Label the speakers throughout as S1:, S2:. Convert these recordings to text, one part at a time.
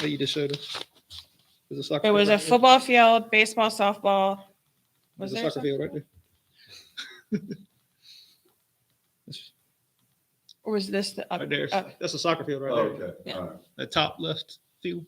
S1: that you just showed us? There's a soccer
S2: There
S1: field
S2: was a
S1: right there.
S2: football field, baseball, softball.
S1: There's
S2: Was
S1: a
S2: there
S1: soccer field right
S2: something?
S1: there. It's
S2: Or was this the up?
S1: Right there.
S2: up-
S1: That's a soccer field right there.
S3: Oh, Okay,
S2: Yeah.
S3: all right.
S1: The top left field.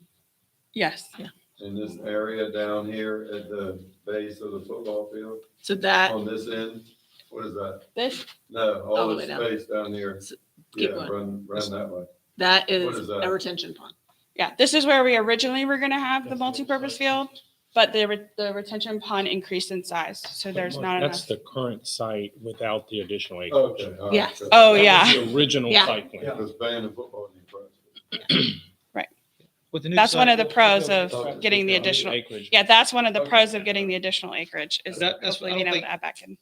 S2: Yes, yeah.
S3: And this area down here at the base of the football field,
S4: So that,
S3: on this end, what is that?
S4: this,
S3: No,
S4: All
S3: all
S4: the
S3: this
S4: way down.
S3: space down here.
S4: S-
S3: Yeah,
S4: keep going.
S3: run, run that way.
S4: that
S3: What is
S4: is
S3: that?
S4: a retention pond.
S2: Yeah, this is where we originally were gonna have the multipurpose field, but the, re- the retention pond increased in size, so there's not
S5: That's
S2: enough.
S5: the current site without the additional acreage.
S3: Okay. all right,
S4: Yes.
S3: good.
S2: Oh,
S5: That was
S2: yeah.
S5: The original
S4: Yeah.
S5: site plan.
S3: Because playing the football in front.
S1: With the new
S2: That's one of the
S1: soccer-
S2: pros
S3: Okay.
S2: of getting
S1: uh,
S2: the
S3: Yeah, I mean,
S2: additional,
S5: Acreage.
S2: yeah, that's one of the
S3: Okay.
S2: pros of getting the additional acreage is
S1: That- that's what
S2: hopefully
S1: I
S2: being
S1: don't
S2: able to
S1: think-
S2: add back in.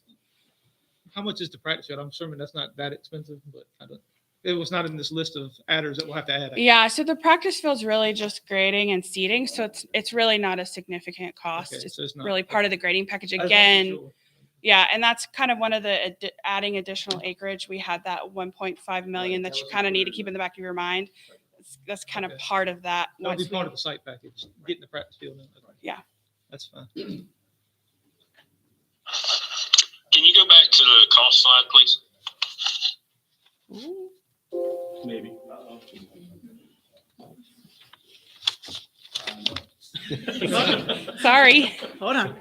S1: How much is the practice field? I'm assuming that's not that expensive, but I don't, it was not in this list of adders that we'll have to add.
S2: Yeah, so the practice field's really just grading and seating, so it's, it's really not a significant cost.
S1: Okay,
S2: It's
S1: so it's not-
S2: really part of the grading package
S1: I just wanted to be
S2: again.
S1: sure.
S2: Yeah, and that's kind of one of the addi- adding additional acreage. We had that 1.5 million
S3: that
S2: that you
S3: was
S2: kind of need to
S3: included in
S2: keep in the back of your mind. That's- That's kind of
S1: Okay.
S2: part of that.
S1: That'll be
S2: once we-
S1: part of the site package, getting the practice field in.
S2: Yeah.
S1: That's fine.
S6: Can you go back to the cost slide, please?
S2: Sorry.
S4: Hold on.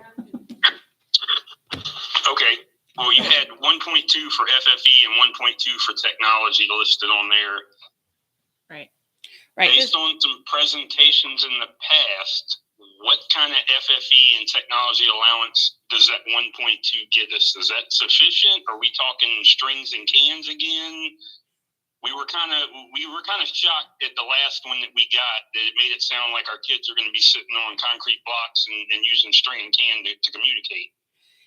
S6: Okay, well, you had one point two for FFE and one point two for technology listed on there.
S4: Right.
S2: Right.
S6: Based on some presentations in the past, what kind of FFE and technology allowance does that one point two get us? Is that sufficient? Are we talking strings and cans again? We were kind of, we were kind of shocked at the last one that we got, that it made it sound like our kids are going to be sitting on concrete blocks and, and using string and can to, to communicate.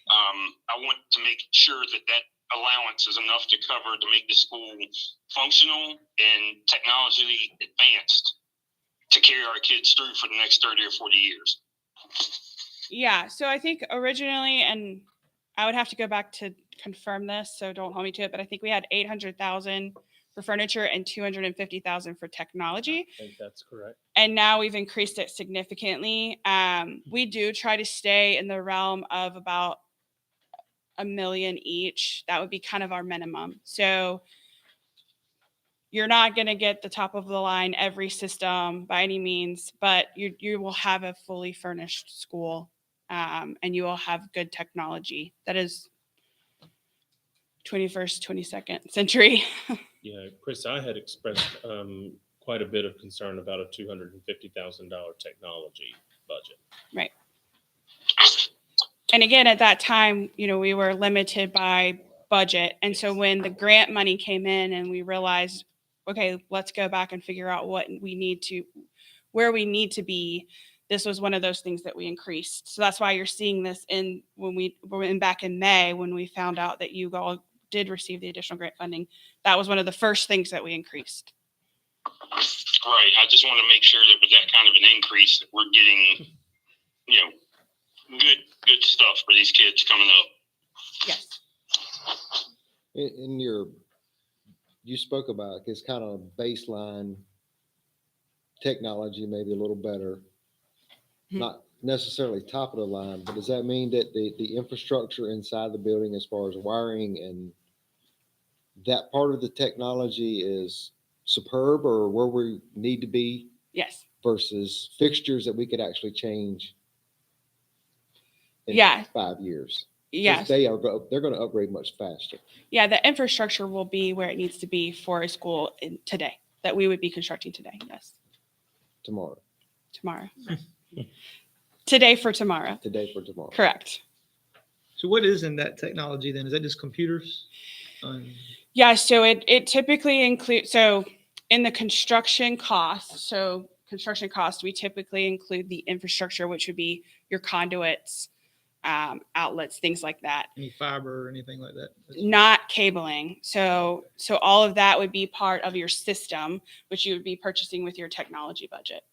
S6: Um, I want to make sure that that allowance is enough to cover to make the school functional and technologically advanced to carry our kids through for the next 30 or 40 years.
S2: Yeah, so I think originally, and I would have to go back to confirm this, so don't hold me to it, but I think we had 800,000 for furniture and 250,000 for technology.
S5: I think that's correct.
S2: and now we've increased it significantly. Um, we do try to stay in the realm of about a million each. That would be kind of our minimum. So you're not going to get the top of the line every system by any means, but you you will have a fully furnished school, um, and you will have good technology that is 21st, 22nd century.
S5: Yeah, Chris, I had expressed um, quite a bit of concern about a two hundred and fifty thousand dollar technology budget.
S2: and again at that time you know we were limited by budget and so when the grant money came in and we realized okay let's go back and figure out what we need to where we need to be this was one of those things that we increased so that's why you're seeing this in when we were in back in may when we found out that you all did receive the additional grant funding that was one of the first things that we increased
S6: Right. I just want to make sure that with that kind of an increase, that we're getting, you know, good, good stuff for these kids coming up.
S2: yes
S7: In, in your, you spoke about this kind of baseline technology, maybe a little better.
S2: Mhm.
S7: Not necessarily top of the line, but does that mean that the, the infrastructure inside the building as far as wiring and that part of the technology is superb or where we need to be
S2: yes
S7: versus fixtures that we could actually change? in
S2: Yeah.
S7: Five years. 'Cause
S2: yes
S7: They are, go- they're going to upgrade much faster.
S2: yeah the infrastructure will be where it needs to be for a school in today that we would be constructing today yes
S7: tomorrow,
S2: tomorrow. Today for tomorrow.
S7: today for tomorrow.
S2: Correct.
S1: So what is in that technology then? Is that just computers? Um,
S2: Yeah, so it, it typically includes, so in the construction cost, so construction cost, we typically include the infrastructure, which would be your conduits, um, outlets, things like that,
S1: Any fiber or anything like that?
S2: not cabling. So, so all of that would be part of your system, which you would be purchasing with your technology budget.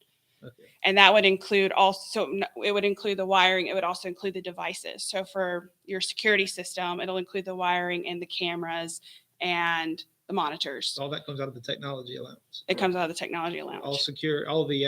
S1: Okay.
S2: And that would include also, n- it would include the wiring, it would also include the devices. So for your security system, it'll include the wiring and the cameras and the monitors.
S1: Oh, All that comes out of the technology allowance.
S2: It comes out of the technology allowance.
S1: All secure, all the